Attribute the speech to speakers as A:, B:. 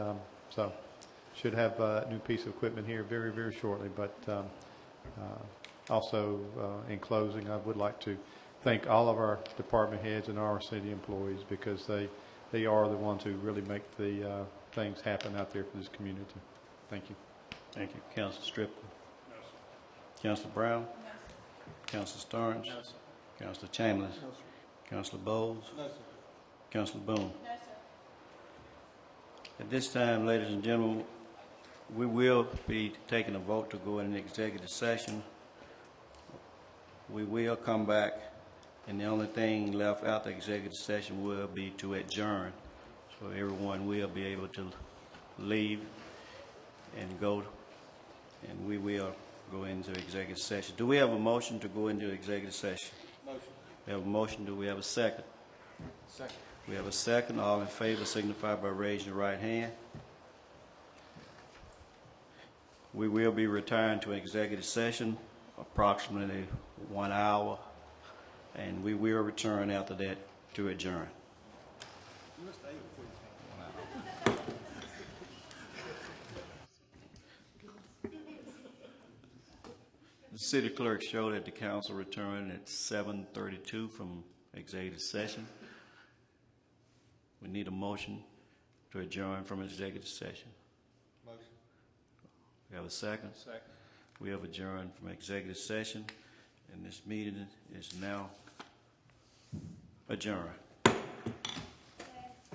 A: So should have uh, a new piece of equipment here very, very shortly. But um, uh, also, uh, in closing, I would like to thank all of our department heads and our city employees because they, they are the ones who really make the uh, things happen out there for this community. Thank you.
B: Thank you. Counsel Striplin? Counsel Brown? Counsel Starnes? Counsel Chambliss? Counsel Bowles? Counsel Boone? At this time, ladies and gentlemen, we will be taking a vote to go in an executive session. We will come back, and the only thing left out the executive session will be to adjourn. So everyone will be able to leave and go, and we will go into executive session. Do we have a motion to go into executive session? Motion. We have a motion, do we have a second?
C: Second.
B: We have a second, all in favor signify by raising your right hand. We will be retiring to executive session approximately one hour, and we will return after that to adjourn. The city clerk showed that the council returned at 7:32 from executive session. We need a motion to adjourn from executive session.
C: Motion.
B: We have a second?
C: Second.
B: We have adjourned from executive session, and this meeting is now adjourned.